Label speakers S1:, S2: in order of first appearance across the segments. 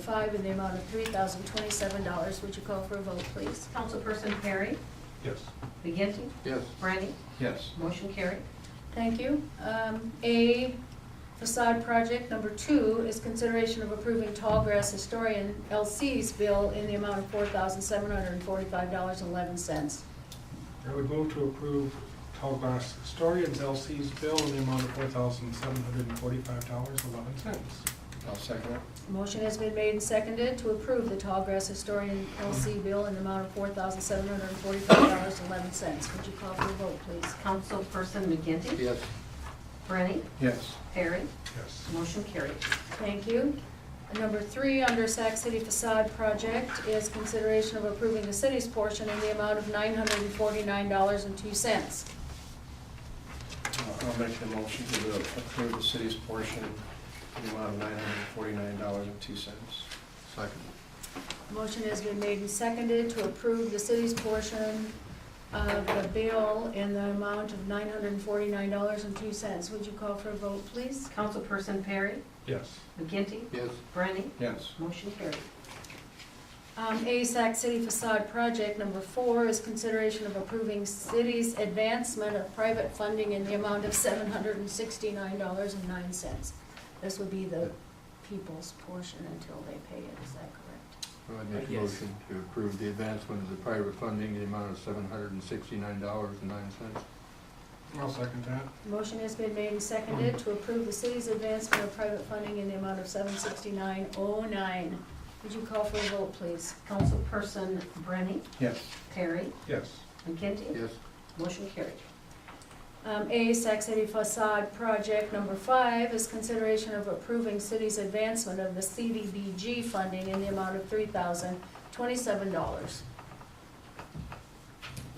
S1: Five in the amount of three thousand twenty-seven dollars. Would you call for a vote, please?
S2: Councilperson Perry?
S3: Yes.
S2: McGinty?
S4: Yes.
S2: Brandy?
S3: Yes.
S2: Motion carried.
S1: Thank you. Um, A facade project number two is consideration of approving Tallgrass Historian LC's bill in the amount of four thousand seven hundred and forty-five dollars and eleven cents.
S3: I would move to approve Tallgrass Historians LC's bill in the amount of four thousand seven hundred and forty-five dollars, eleven cents.
S4: I'll second it.
S1: Motion has been made and seconded to approve the Tallgrass Historian LC bill in the amount of four thousand seven hundred and forty-five dollars and eleven cents. Would you call for a vote, please?
S2: Councilperson McGinty?
S4: Yes.
S2: Brandy?
S4: Yes.
S2: Perry?
S3: Yes.
S2: Motion carried.
S1: Thank you. Number three, under Sac City facade project, is consideration of approving the city's portion in the amount of nine hundred and forty-nine dollars and two cents.
S4: I'll make the motion to approve the city's portion in the amount of nine hundred forty-nine dollars and two cents. Second.
S1: Motion has been made and seconded to approve the city's portion of the bill in the amount of nine hundred and forty-nine dollars and two cents. Would you call for a vote, please?
S2: Councilperson Perry?
S3: Yes.
S2: McGinty?
S4: Yes.
S2: Brandy?
S4: Yes.
S2: Motion carried.
S1: Um, A Sac City facade project number four is consideration of approving city's advancement of private funding in the amount of seven hundred and sixty-nine dollars and nine cents. This would be the people's portion until they pay it, is that correct?
S5: I make a
S6: Yes.
S5: motion to approve the advancement of the private funding in the amount of seven hundred and sixty-nine dollars and nine cents.
S3: I'll second that.
S1: Motion has been made and seconded to approve the city's advancement of private funding in the amount of seven sixty-nine oh nine. Would you call for a vote, please?
S2: Councilperson Brandy?
S4: Yes.
S2: Perry?
S3: Yes.
S2: McGinty?
S5: Yes,
S2: Motion carried.
S1: Um, A, Sac City facade project number five is consideration of approving city's advancement of the CDBG funding in the amount of three thousand twenty-seven dollars.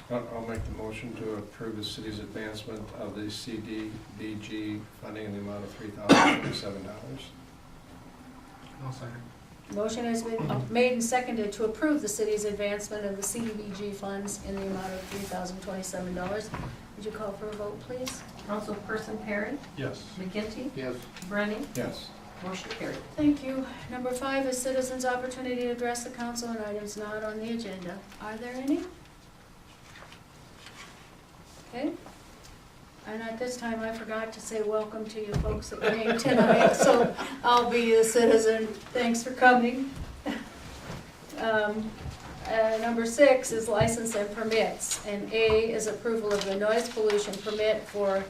S4: I'll, I'll make the motion to approve the city's advancement of the CDBG funding in the amount of three thousand forty-seven dollars.
S3: I'll second.
S1: Motion has been uh, made and seconded to approve the city's advancement of the CDBG funds in the amount of three thousand twenty-seven dollars. Would you call for a vote, please?
S2: Councilperson Perry?
S3: Yes.
S2: McGinty?
S5: yes,
S2: Brandy?
S4: Yes.
S2: Motion carried.
S1: Thank you. Number five is citizens' opportunity to address the council on items not on the agenda. Are there any? Okay. And at this time, I forgot to say welcome to you folks that came tonight, so I'll be a citizen. Thanks for coming. Um, uh, Number six is license and permits, and A is approval of the noise pollution permit for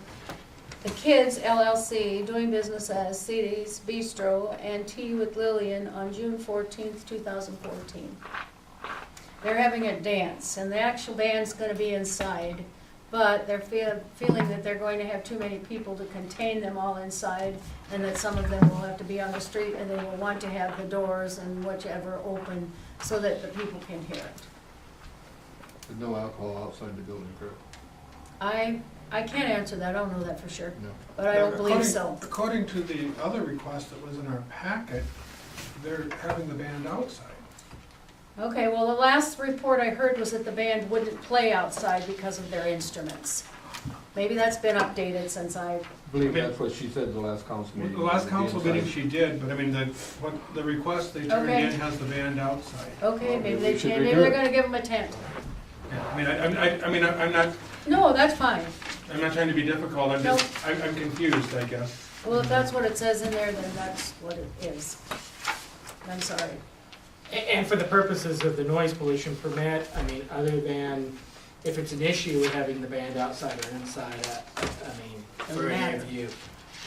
S1: the Kids LLC, doing business as CD's Bistro and Tea with Lillian on June fourteenth, two thousand fourteen. They're having a dance, and the actual band's gonna be inside, but they're feel, feeling that they're going to have too many people to contain them all inside, and that some of them will have to be on the street, and they will want to have the doors and whichever open, so that the people can hear it.
S5: with no alcohol outside the building, correct?
S1: I, I can't answer that, I don't know that for sure,
S5: No.
S1: but I don't believe
S3: According-
S1: so.
S3: According to the other request that was in our packet, they're having the band outside.
S1: Okay, well, the last report I heard was that the band wouldn't play outside because of their instruments. Maybe that's been updated since I,
S5: I believe that's what she said the last council meeting.
S3: The last
S5: The
S3: council
S5: inside.
S3: meeting she did, but I mean, the, what, the request they turned
S1: Okay.
S3: in has the band outside.
S1: okay,
S5: Well,
S1: maybe
S5: maybe
S1: they
S5: we should
S1: changed, maybe they're
S5: redo it.
S1: gonna give them a tent.
S3: Yeah, I mean, I, I, I mean, I- I'm not,
S1: No, that's fine.
S3: I'm not trying to be difficult, I'm just, I'm I'm confused, I guess.
S1: Well, if that's what it says in there, then that's what it is. I'm sorry.
S6: A- And for the purposes of the noise pollution permit, I mean, other than if it's an issue with having the band outside or inside, I, I mean, for any
S1: matter.
S6: of you.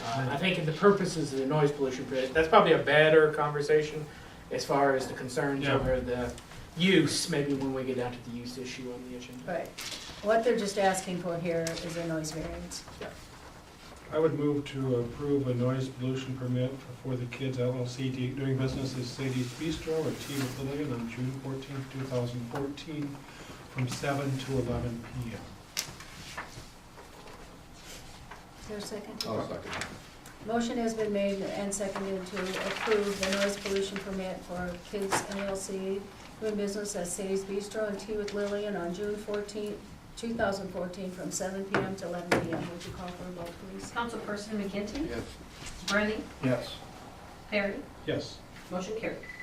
S6: Uh, I think in the purposes of the noise pollution permit, that's probably a better conversation as far as the concerns
S3: Yeah.
S6: over the use, maybe when we get down to the use issue on the agenda.
S1: Right. What they're just asking for here is a noise variance.
S3: I would move to approve a noise pollution permit for the Kids LLC d- doing business as Sadie's Bistro or Tea with Lillian on June fourteenth, two thousand fourteen, from seven to eleven P M.
S1: Is there a second?
S5: I'll second.
S1: Motion has been made and seconded to approve the noise pollution permit for Kids LLC doing business at Sadie's Bistro and Tea with Lillian on June fourteenth, two thousand fourteen, from seven PM to eleven PM. Would you call for a vote, please?
S2: Councilperson McGinty?
S5: Yes,
S2: Brandy?
S4: Yes.
S2: Perry?
S3: Yes.
S2: Motion carried.